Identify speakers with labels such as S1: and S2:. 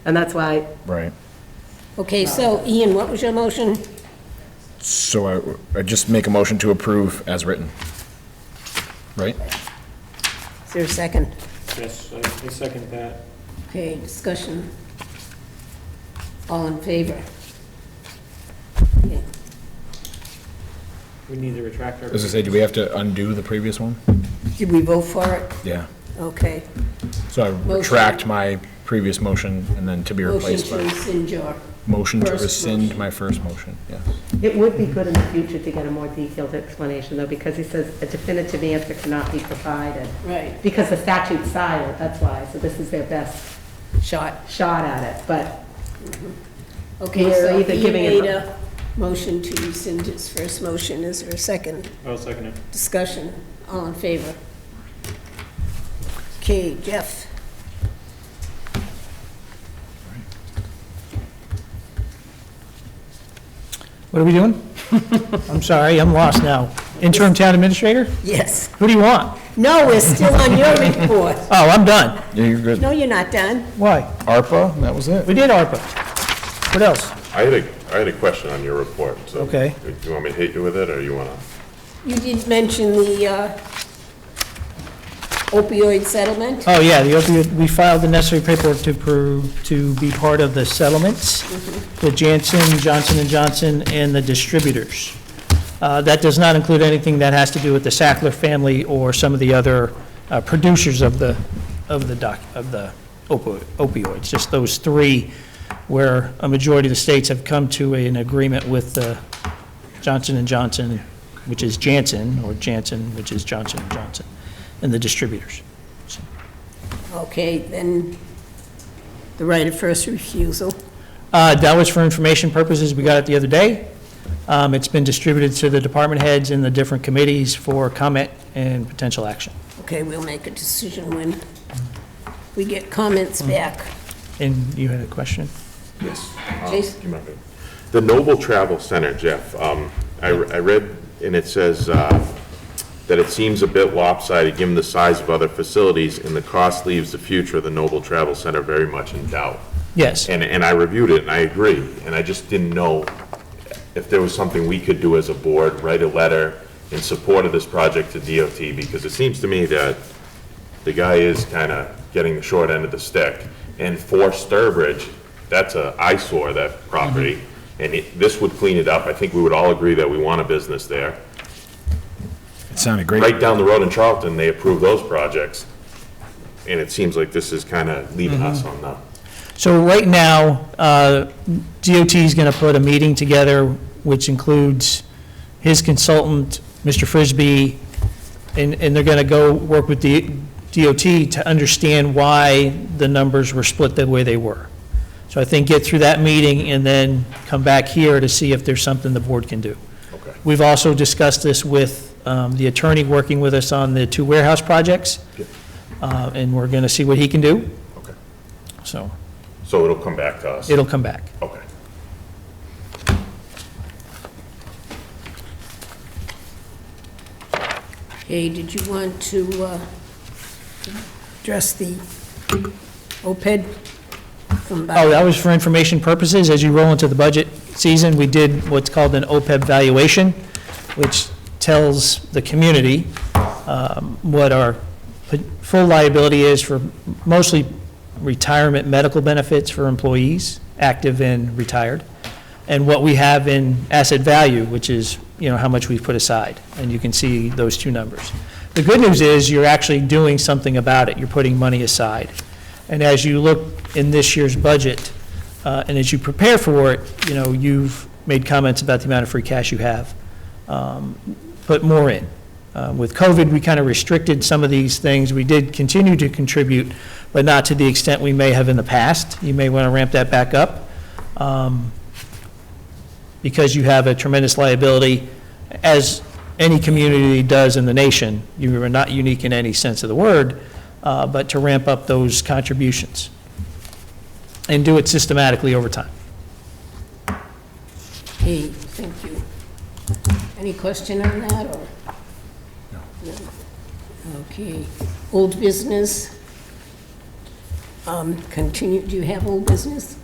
S1: And that's why,
S2: Right.
S3: Okay, so Ian, what was your motion?
S2: So I, I just make a motion to approve as written. Right?
S3: Is there a second?
S4: Yes, I I second that.
S3: Okay, discussion. All in favor? Okay.
S4: We need to retract our.
S2: As I say, do we have to undo the previous one?
S3: Did we vote for it?
S2: Yeah.
S3: Okay.
S2: So I retract my previous motion and then to be
S3: Motion
S2: replaced
S3: to
S2: by,
S3: rescind your,
S2: motion to
S3: First
S2: rescind
S3: motion.
S2: my first motion, yes.
S1: it would be good in the future to get a more detailed explanation, though, because he says a definitive answer cannot be provided.
S3: right,
S1: Because the statute's silent, that's why, so this is their best
S3: shot.
S1: shot at it, but
S3: Okay,
S1: We're
S3: so
S1: either
S3: Ian
S1: giving
S3: made
S1: it-
S3: a motion to rescind his first motion. Is there a second?
S4: I'll second it.
S3: Discussion. All in favor? Okay, Jeff?
S5: What are we doing? I'm sorry, I'm lost now. Interim town administrator?
S3: Yes.
S5: Who do you want?
S3: No, we're still on your report.
S5: Oh, I'm done.
S2: Yeah, you're good.
S3: No, you're not done.
S5: Why?
S2: ARPA, that was it.
S5: We did ARPA. What else?
S6: I had a, I had a question on your report, so.
S5: Okay.
S6: Do you want me to hit you with it, or you wanna?
S3: You did mention the uh, opioid settlement.
S5: Oh, yeah, the opioid, we filed the necessary paperwork to pro to be part of the settlements with Janssen, Johnson and Johnson, and the distributors. Uh, That does not include anything that has to do with the Sackler family or some of the other uh, producers of the, of the doc, of the opo- opioids. Just those three where a majority of the states have come to an agreement with uh, Johnson and Johnson, which is Janssen, or Janssen, which is Johnson and Johnson, and the distributors.
S3: Okay, then the right of first refusal.
S5: Uh, That was for information purposes, we got it the other day. Um, It's been distributed to the department heads and the different committees for comment and potential action.
S3: Okay, we'll make a decision when we get comments back.
S5: And you had a question?
S6: Yes.
S3: Jason?
S6: Do you mind? The Noble Travel Center, Jeff, um, I, I read, and it says, uh, that it seems a bit lopsided, given the size of other facilities, and the cost leaves the future of the Noble Travel Center very much in doubt.
S5: Yes.
S6: And, and I reviewed it, and I agree, and I just didn't know if there was something we could do as a board, write a letter in support of this project to DOT, because it seems to me that the guy is kind of getting the short end of the stick. And for Sturbridge, that's a eyesore, that property, and it- this would clean it up. I think we would all agree that we want a business there.
S2: It sounded great.
S6: Right down the road in Charlton, they approve those projects, and it seems like this is kind of leaving us on the
S5: So right now, uh, DOT is going to put a meeting together, which includes his consultant, Mr. Frisbee, and, and they're going to go work with the DOT to understand why the numbers were split the way they were. So I think get through that meeting and then come back here to see if there's something the board can do.
S6: Okay.
S5: We've also discussed this with um, the attorney working with us on the two warehouse projects,
S6: Yep.
S5: Uh, and we're going to see what he can do,
S6: Okay.
S5: so
S6: So it'll come back to us?
S5: it'll come back.
S6: Okay.
S3: Hey, did you want to uh, address the OPED from
S5: Oh,
S3: Bob?
S5: that was for information purposes. As you roll into the budget season, we did what's called an OPEB valuation, which tells the community um, what our p- full liability is for mostly retirement medical benefits for employees, active and retired, and what we have in asset value, which is, you know, how much we've put aside. And you can see those two numbers. The good news is you're actually doing something about it. You're putting money aside. And as you look in this year's budget, uh, and as you prepare for it, you know, you've made comments about the amount of free cash you have. Um, Put more in. Uh, With COVID, we kind of restricted some of these things. We did continue to contribute, but not to the extent we may have in the past. You may want to ramp that back up um, because you have a tremendous liability, as any community does in the nation. You are not unique in any sense of the word, uh, but to ramp up those contributions and do it systematically over time.
S3: Hey, thank you. Any question on that, or? No. Okay, old business. Um, um, continue, do you have old business?